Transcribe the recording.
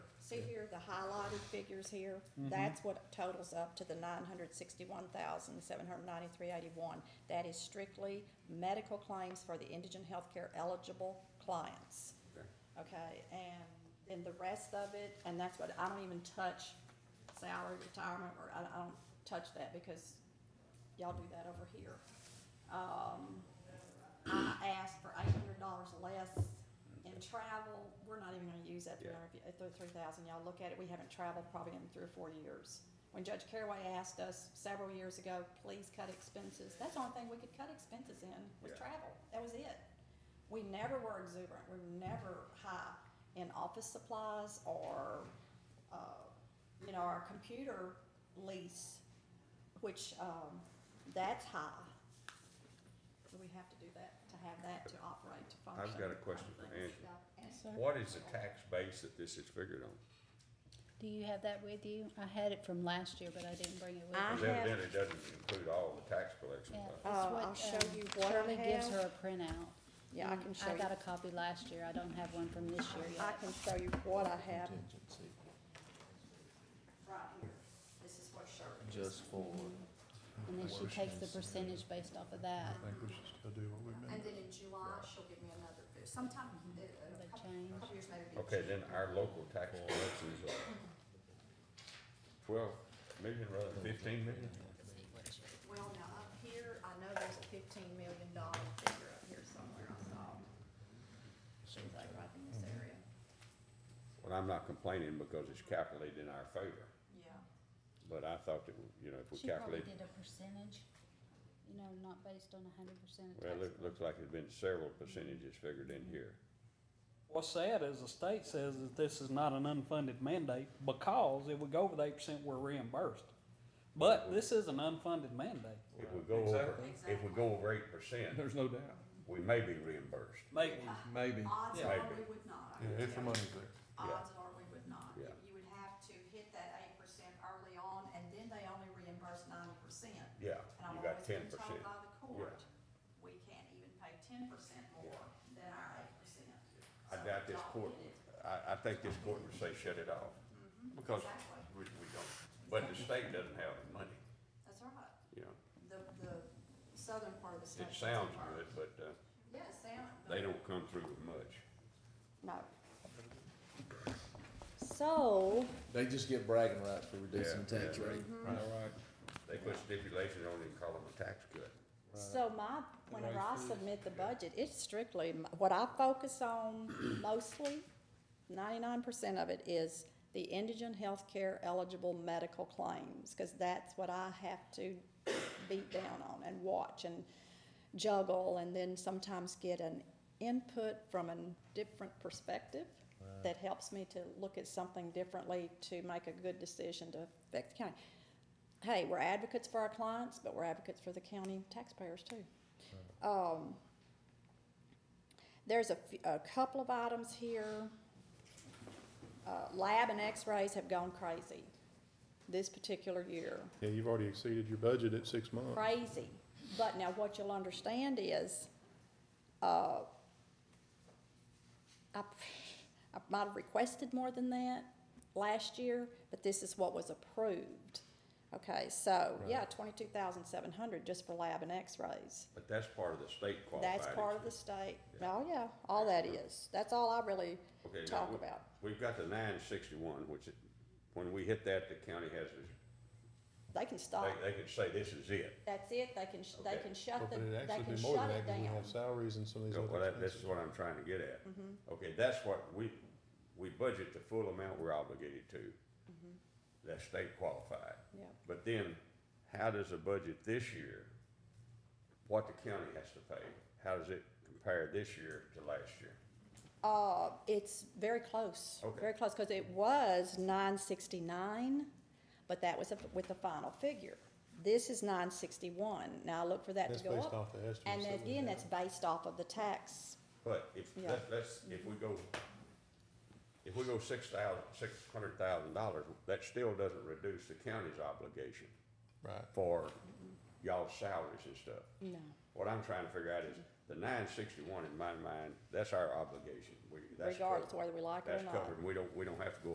See here, the highlighted figures here, that's what totals up to the nine hundred sixty-one thousand, seven hundred ninety-three eighty-one. That is strictly medical claims for the indigent healthcare eligible clients. Okay. Okay, and then the rest of it, and that's what, I don't even touch salary, retirement, or I, I don't touch that because y'all do that over here. Um, I asked for eight hundred dollars less in travel, we're not even gonna use that three Yeah. hundred, three thousand, y'all look at it, we haven't traveled probably in three or four years. When Judge Caraway asked us several years ago, please cut expenses, that's the only thing we could cut expenses in, was Yeah. travel, that was it. We never were exuberant, we were never high in office supplies or, uh, you know, our computer lease, which, um, that's high. Do we have to do that, to have that to operate, to function? I've got a question for Angela. Yes, sir. What is the tax base that this is figured on? Do you have that with you? I had it from last year, but I didn't bring it with I- me. Because evidently it doesn't include all the tax collection. Yeah, but- it's Uh, what, I'll show um, you what I Shirley gives have. her a printout. Yeah, I and can show I you, got a copy last year. I don't have one from this year I yet. can show you what I have Contingency, right here. This is what Shirley is. just for, And then she Worst takes the case percentage based off of that, I think we should still do what we've been. And then in July, she'll give me another, sometime, uh, the a couple, change. couple years later. it'll be Okay, June. then our local tax collections are twelve million rather than fifteen million? Well, now up here, I know there's a fifteen million dollar figure up here somewhere I saw. She's like right in this Mm-hmm. area. Well, I'm not complaining because it's calculated in our favor, Yeah. but I thought that, you know, if we She probably calculate, did a percentage, you know, not based on a hundred percent of well, tax. it looks like there's been several percentages figured in here. What's sad is the state says that this is not an unfunded mandate because if we go over the eight percent, we're reimbursed. But this is an unfunded mandate. If we go over, if we go over eight percent, There's no doubt, we may be reimbursed. Maybe, maybe, Odds Yeah. are Maybe. we would not. Yeah, if the money's there. Odds are we would not. Yeah. You would have to hit that eight percent early on, and then they only reimburse ninety percent. Yeah, And I've you always got ten been told percent. by the court, we can't even pay ten percent more than our eight percent. I doubt this court, I, I think this court would say shut it off, Mm-hmm. because we, we don't, but the state doesn't have the money, That's right. you know. The, the southern part of the state. It sounds good, but, uh, Yeah, it sounds. they don't come through with much. No. So, they just get bragging rights for reducing the Yeah, tax yeah. rate. Mm-hmm. right, right. They put stipulations on it and call them a tax cut. so my, whenever I submit the budget, it's strictly, m- what I focus on mostly, ninety-nine percent of it is the indigent healthcare eligible medical claims, cause that's what I have to beat down on and watch and juggle, and then sometimes get an input from a different perspective that helps me to look at something differently to make a good decision to affect the county. Hey, we're advocates for our clients, but we're advocates for the county taxpayers too. Um, there's a, f- a couple of items here. Uh, lab and x-rays have gone crazy this particular year Yeah, you've already exceeded your budget at six months. crazy. But now what you'll understand is, uh, I, I might have requested more than that last year, but this is what was approved. Okay, so, yeah, twenty-two thousand seven hundred just for lab and x-rays. But that's part of the state qualified. That's part of the exemption. state. Yeah. Oh, yeah, all that is. That's all I really Okay, now talk we- about. We've got the nine sixty-one, which, it- when we hit that, the county has, this- They can stop. they, they could say this is it. That's it. They can, sh- they Okay. can Well, shut the, But it'd they actually can be more than shut that, it because we down. have salaries and some of these Well, other that, this expenses. is what I'm trying to get at. Mm-hmm. Okay, that's what we, we budget the full amount we're obligated to. That's state qualified. Mm-hmm. Yeah. But then, how does the budget this year, what the county has to pay, how does it compare this year to last year? Uh, it's very close, Okay. very close, because it was nine sixty-nine, but that was a- with the final figure. This is nine sixty-one. Now, I look for that That's to go based up. off the estimates. And that we again, have. that's based off of the tax. But if, Yeah. let's, let's, if we go, if we go six thousand, six hundred thousand dollars, that still doesn't reduce the county's obligation Right. for Mm-hmm. y'all's salaries and stuff. No. What I'm trying to figure out is, the nine sixty-one in my mind, that's our obligation, we, that's covered. Regardless of whether we like it or That's not. covered, and we don't, we don't have to go